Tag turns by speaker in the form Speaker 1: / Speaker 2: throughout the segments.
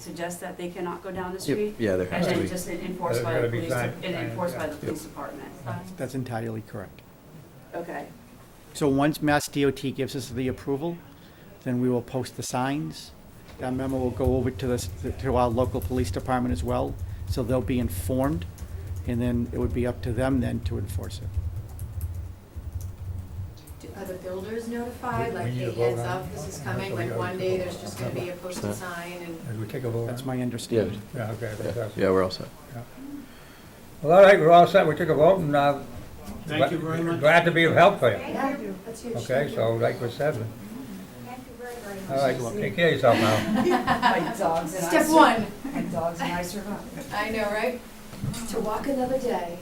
Speaker 1: suggest that they cannot go down the
Speaker 2: Yep,
Speaker 1: street?
Speaker 2: yeah, there
Speaker 1: And
Speaker 2: has to
Speaker 1: then
Speaker 2: be.
Speaker 1: just enforced
Speaker 3: There's
Speaker 1: by the
Speaker 3: gotta be
Speaker 1: police, de-
Speaker 3: time,
Speaker 1: and
Speaker 3: time,
Speaker 1: enforced by
Speaker 3: yeah.
Speaker 1: the police department.
Speaker 4: That's entirely correct.
Speaker 1: Okay,
Speaker 4: So once Mass DOT gives us the approval, then we will post the signs. That memo will go over to this, to our local police department as well, so they'll be informed, and then it would be up to them then to enforce it.
Speaker 5: Do- Are the builders notified,
Speaker 3: We-
Speaker 5: like,
Speaker 3: we need
Speaker 5: hey,
Speaker 3: to vote
Speaker 5: heads
Speaker 3: on-
Speaker 5: up, this is coming,
Speaker 3: on-
Speaker 5: like, one day, there's just gonna be a
Speaker 2: Yeah.
Speaker 5: posted sign and
Speaker 3: As we take a vote.
Speaker 4: That's
Speaker 3: on it.
Speaker 4: my understanding.
Speaker 3: Yeah, okay.
Speaker 2: Yeah,
Speaker 3: that's-
Speaker 2: yeah, we're all set.
Speaker 3: Well, all right, we're all set. We took a vote and, uh.
Speaker 6: Thank you very much.
Speaker 3: Glad to be of help for you.
Speaker 5: Yeah, that's huge.
Speaker 3: Okay, so like we said,
Speaker 7: Thank you very, very much.
Speaker 3: all right, take care of yourself now.
Speaker 8: My dogs and I.
Speaker 5: Step
Speaker 8: sur-
Speaker 5: one,
Speaker 8: My dogs and I survived.
Speaker 5: I know, right? To walk another day.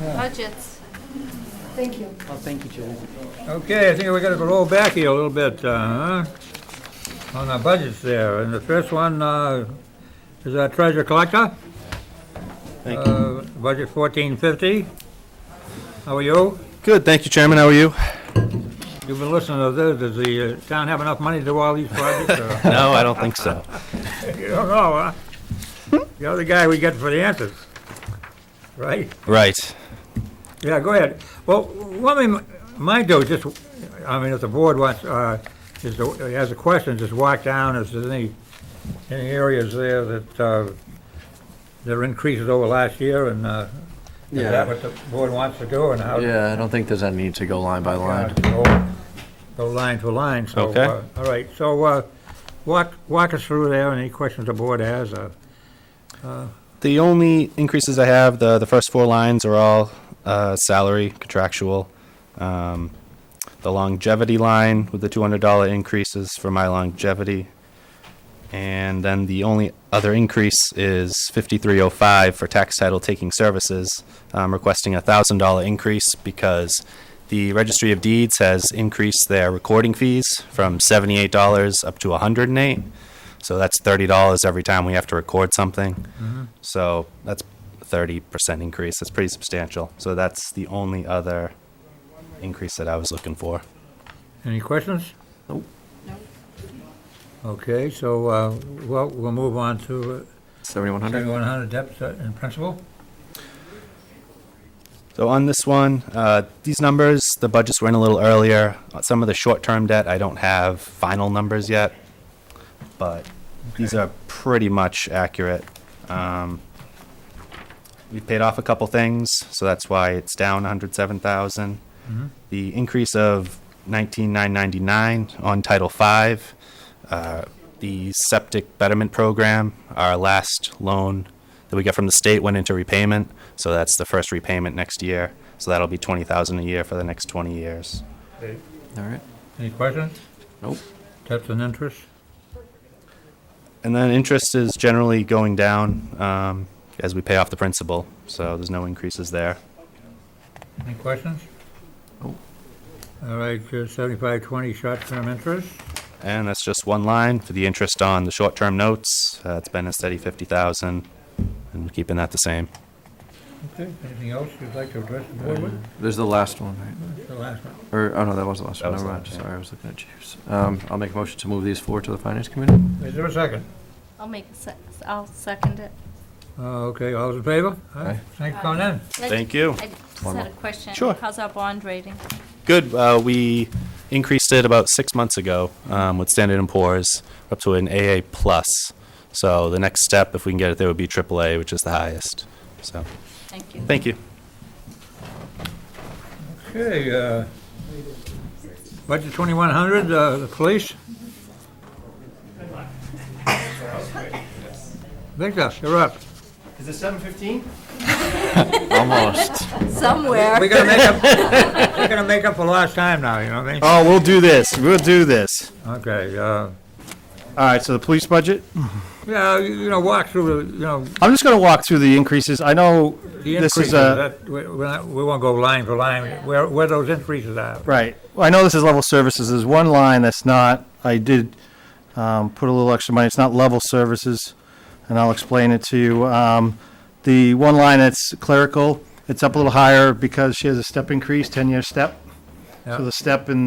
Speaker 9: Budgets.
Speaker 5: Thank you.
Speaker 4: Well, thank you, Julie.
Speaker 3: Okay, I think we're gonna roll back here a little bit, uh, huh, on our budgets there. And the first one, uh, is our treasure collector. Thank you. Budget fourteen fifty. How are you?
Speaker 2: Good, thank you, Chairman, how are you?
Speaker 3: You've been listening to this. Does the uh, town have enough money to do all these projects? or-
Speaker 2: No, I don't think so.
Speaker 3: You don't know, huh? You're the guy we get for the answers, right?
Speaker 2: Right.
Speaker 3: Yeah, go ahead. Well, what we might do, just, I mean, if the board wants, uh, is, to- has a question, just walk down if there's any, any areas there that, uh, there are increases over last year and, uh, is that
Speaker 2: Yeah.
Speaker 3: what the board wants to do and how?
Speaker 2: Yeah, I don't think there's any need to go line by line.
Speaker 3: Go- Go line for line, so,
Speaker 2: Okay.
Speaker 3: uh, all right, so, uh, walk, walk us through there, any questions the board has, uh,
Speaker 10: The only increases I have, the, the first four lines are all uh, salary, contractual. Um, the longevity line with the $200 increases for my longevity. And then the only other increase is 5305 for tax title taking services, um, requesting a $1,000 increase because the Registry of Deeds has increased their recording fees from $78 up to 108. So that's $30 every time we have to record something. So that's thirty percent increase. That's pretty substantial. So that's the only other increase that I was looking for.
Speaker 3: Any questions? Nope. Okay, so, uh, well, we'll move on to
Speaker 2: Seventy-one
Speaker 3: uh,
Speaker 2: hundred?
Speaker 3: 7100 depth uh, in principle.
Speaker 10: So on this one, uh, these numbers, the budgets were in a little earlier. Uh, Some of the short-term debt, I don't have final numbers yet, but these are pretty much accurate. Um, we paid off a couple things, so that's why it's down 107,000. The increase of 19,999 on Title V, uh, the septic betterment program, our last loan that we got from the state went into repayment, so that's the first repayment next year. So that'll be 20,000 a year for the next 20 years.
Speaker 2: All right.
Speaker 3: Any questions?
Speaker 2: Nope.
Speaker 3: Depth and interest?
Speaker 10: And then interest is generally going down um, as we pay off the principal, so there's no increases there.
Speaker 3: Any questions?
Speaker 2: Nope.
Speaker 3: All right, uh, 7520 short-term interest.
Speaker 10: And that's just one line for the interest on the short-term notes. Uh, It's been a steady 50,000, and we're keeping that the same.
Speaker 3: Okay. Anything else you'd like to address the board with?
Speaker 2: Uh, There's the last one, right?
Speaker 3: The last one.
Speaker 2: Or, oh no, that was the last one,
Speaker 10: That was
Speaker 2: never
Speaker 10: the
Speaker 2: mind,
Speaker 10: last one.
Speaker 2: sorry, I was looking at Jeeves. Um, I'll make a motion to move these forward to the Finance Committee.
Speaker 3: Is there a second?
Speaker 9: I'll make, a sec- I'll second it.
Speaker 3: Uh, Okay, all those in favor?
Speaker 2: Aye.
Speaker 3: Thanks for coming in.
Speaker 10: Thank you.
Speaker 9: I just had a question.
Speaker 10: Sure.
Speaker 9: How's our bond rating?
Speaker 10: Good. Uh, we increased it about six months ago um, with Standard and Poor's up to an AA plus. So the next step, if we can get it there, would be AAA, which is the highest. So
Speaker 9: Thank you.
Speaker 10: thank you.
Speaker 3: Okay, uh, budget 2100, uh, the police. Victor, you're up.
Speaker 6: Is it seven fifteen?
Speaker 2: Almost.
Speaker 9: Somewhere.
Speaker 3: We're gonna make up, we're gonna make up for lost time now, you know what I mean?
Speaker 10: Oh, we'll do this. We'll do this.
Speaker 6: Oh.
Speaker 3: Okay, uh,
Speaker 6: All right, so the police budget,
Speaker 3: yeah, you you know, walk through, the you know,
Speaker 6: I'm just gonna walk through the increases, I know
Speaker 3: the
Speaker 6: this
Speaker 3: increases,
Speaker 6: is uh, a,
Speaker 3: that, we, we're not- we won't go line for line, where, where those increases are.
Speaker 6: right, Well, I know this is level services, there's one line that's not, I did, um, put a little extra money, it's not level services, and I'll explain it to you, um, the one line that's clerical, it's up a little higher because she has a step increase, ten-year step,
Speaker 3: Yeah.
Speaker 6: So the step in